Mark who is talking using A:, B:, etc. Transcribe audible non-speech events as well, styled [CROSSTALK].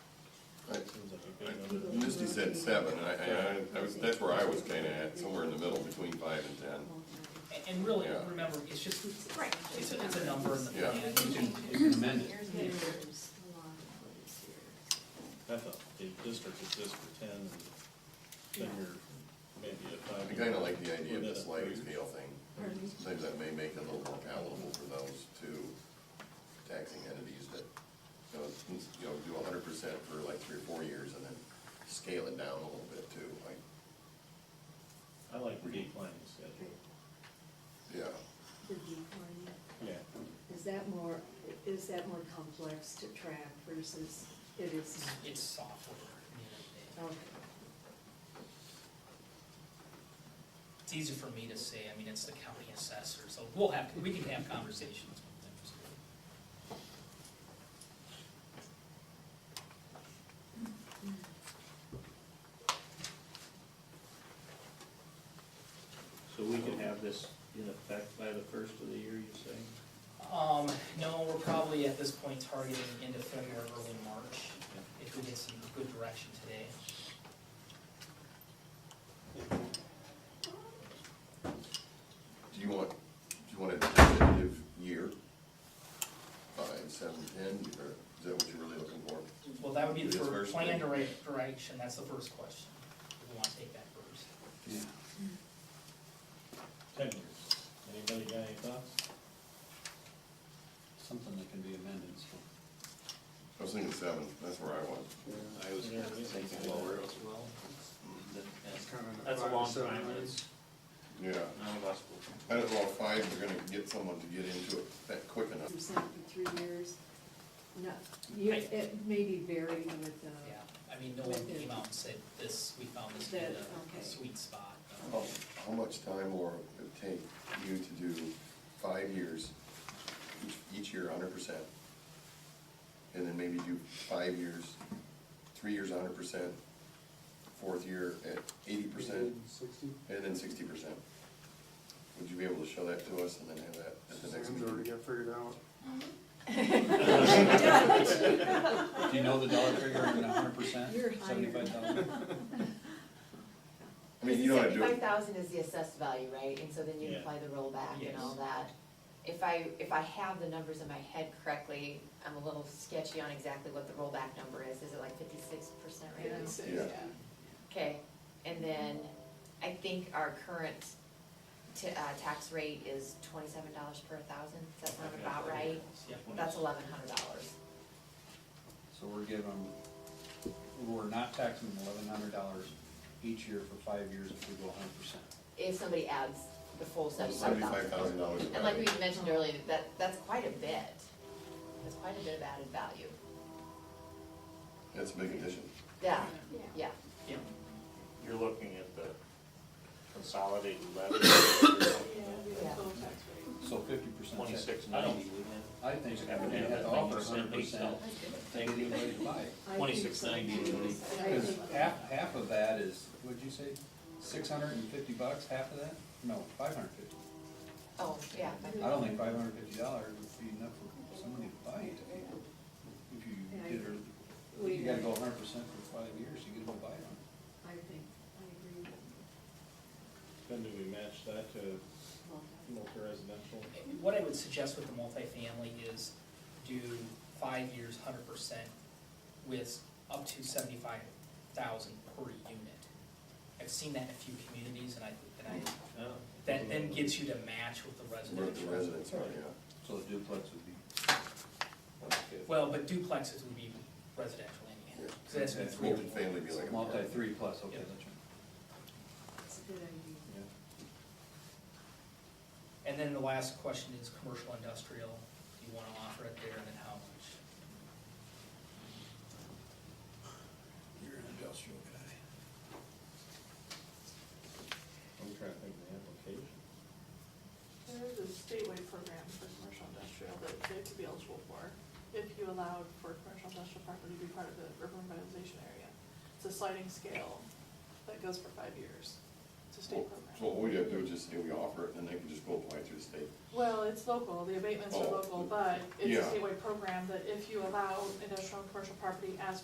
A: said seven, I, I, I was, that's where I was kinda at, somewhere in the middle, between five and ten.
B: And- And really,
A: Yeah.
B: remember, it's just,
C: Right.
B: it's a, it's a number in the
A: Yeah.
B: plan. You can-
D: You can amend it.
E: I thought the district is just for ten, and then you're maybe at five.
A: I kinda like the idea of the sliding scale thing, sometimes that may make it a little more palatable for those two taxing entities that, you know, since, you know, do hundred percent for like three or four years and then scale it down a little bit too, like,
E: I like the declining schedule.
A: yeah.
F: The decline,
E: Yeah.
F: is that more, is that more complex to track versus it is?
B: It's software. I mean, it-
F: Okay,
B: It's easy for me to say, I mean, it's the county assessor, so we'll have, we can have conversations with them.
D: So we can have this in effect by the first of the year, you say?
B: Um, no, we're probably at this point targeting end of February, early March, if we get some good direction today.
A: Do you want, do you want a definitive year? Five, seven, ten, or is that what you're really looking for?
B: Well, that would be the
A: Yes,
B: first
A: first
B: plan
A: thing.
B: direct- direction, that's the first question. We want to take that first.
D: Yeah.
E: Ten years. Anybody got any thoughts?
D: Something that can be amended, so.
A: I was thinking seven, that's where I was.
G: I was
E: Yeah, we-
G: thinking lower as well.
D: That's
G: That's a long time, it's,
A: Yeah.
G: none of us will.
A: I don't know if five is gonna get someone to get into it that quick enough.
F: percent for three years, no, you,
B: I-
F: it may be varied with, uh,
B: Yeah,
F: [LAUGHS]
B: I mean, no one came out and said this, we found this to be
F: That-
B: the
F: okay.
B: sweet spot.
A: How how much time more would it take you to do five years, each, each year hundred percent? And then maybe do five years, three years hundred percent, fourth year at eighty percent,
H: Sixty?
A: and then sixty percent? Would you be able to show that to us and then have that at the next
H: Sam's already
A: meeting?
H: got figured out.
B: [LAUGHS]
D: Do you know the dollar figure, a hundred percent?
F: You're higher.
D: Seventy-five thousand?
F: [LAUGHS]
A: I mean, you know how to do
C: Seventy-five
A: it.
C: thousand is the assessed value, right, and so then you
E: Yeah.
C: apply the rollback and all
B: Yes.
C: that. If I, if I have the numbers in my head correctly, I'm a little sketchy on exactly what the rollback number is, is it like fifty-six percent right now?
A: Yeah.
C: Okay, and then I think our current ta- uh, tax rate is twenty-seven dollars per thousand, does that sound about right?
B: Yeah.
C: That's eleven hundred dollars.
D: So we're giving them, we're not taxing them eleven hundred dollars each year for five years if we go a hundred percent.
C: if somebody adds the full seventy-five
A: Seventy-five thousand
C: thousand.
A: dollars.
C: And like we mentioned earlier, that, that's quite a bit, that's quite a bit of added value,
A: That's a big addition.
C: yeah, yeah,
B: Yeah,
G: You're looking at the consolidated
D: [COUGHS]
G: levy,
C: yeah.
D: So fifty percent.
G: twenty-six ninety, wouldn't
D: I think we
G: Have it
D: have
G: at
D: to offer a
G: 90%
D: hundred
G: based
D: percent, take it anybody to buy.
F: I think
G: 2690
F: so.
G: would be-
F: I
D: Because
F: think-
D: half, half of that is, what'd you say, six hundred and fifty bucks, half of that? No, five hundred fifty.
C: Oh, yeah,
D: I don't think five hundred fifty dollars would be enough for somebody to buy it. If you did, or, you gotta go hundred percent for five years, you get to buy it.
F: I think, I agree with
E: Then do we match that to
F: well,
E: multi-residential?
B: what I would suggest with the multifamily is do five years, hundred percent with up to seventy-five thousand per unit. I've seen that in a few communities and I, and I,
E: No.
B: that then gets you to match with the
A: Where the
B: residential.
A: residents are, yeah.
D: So the duplex would be.
B: Well, but duplexes would be residential anyhow, because that's been three or more.
A: Multifamily be like. an
D: Multi
A: apartment.
D: three plus, okay,
B: Yeah.
D: that's right.
F: it's a good idea.
B: And then the last question is commercial industrial, do you wanna offer it there and then how much?
D: You're an industrial guy.
E: I'm trying to think of the application.
I: There is a statewide program for commercial industrial that they could be eligible for if you allowed for commercial industrial property to be part of the urban revitalization area. It's a sliding scale that goes for five years. It's a state
A: Well, So
I: program.
A: what we have to do is just say we offer it, and they can just go apply through the state.
I: Well, it's local, the abatements are
A: Oh,
I: local, but it's
A: yeah.
I: a statewide program that if you allow industrial and commercial property as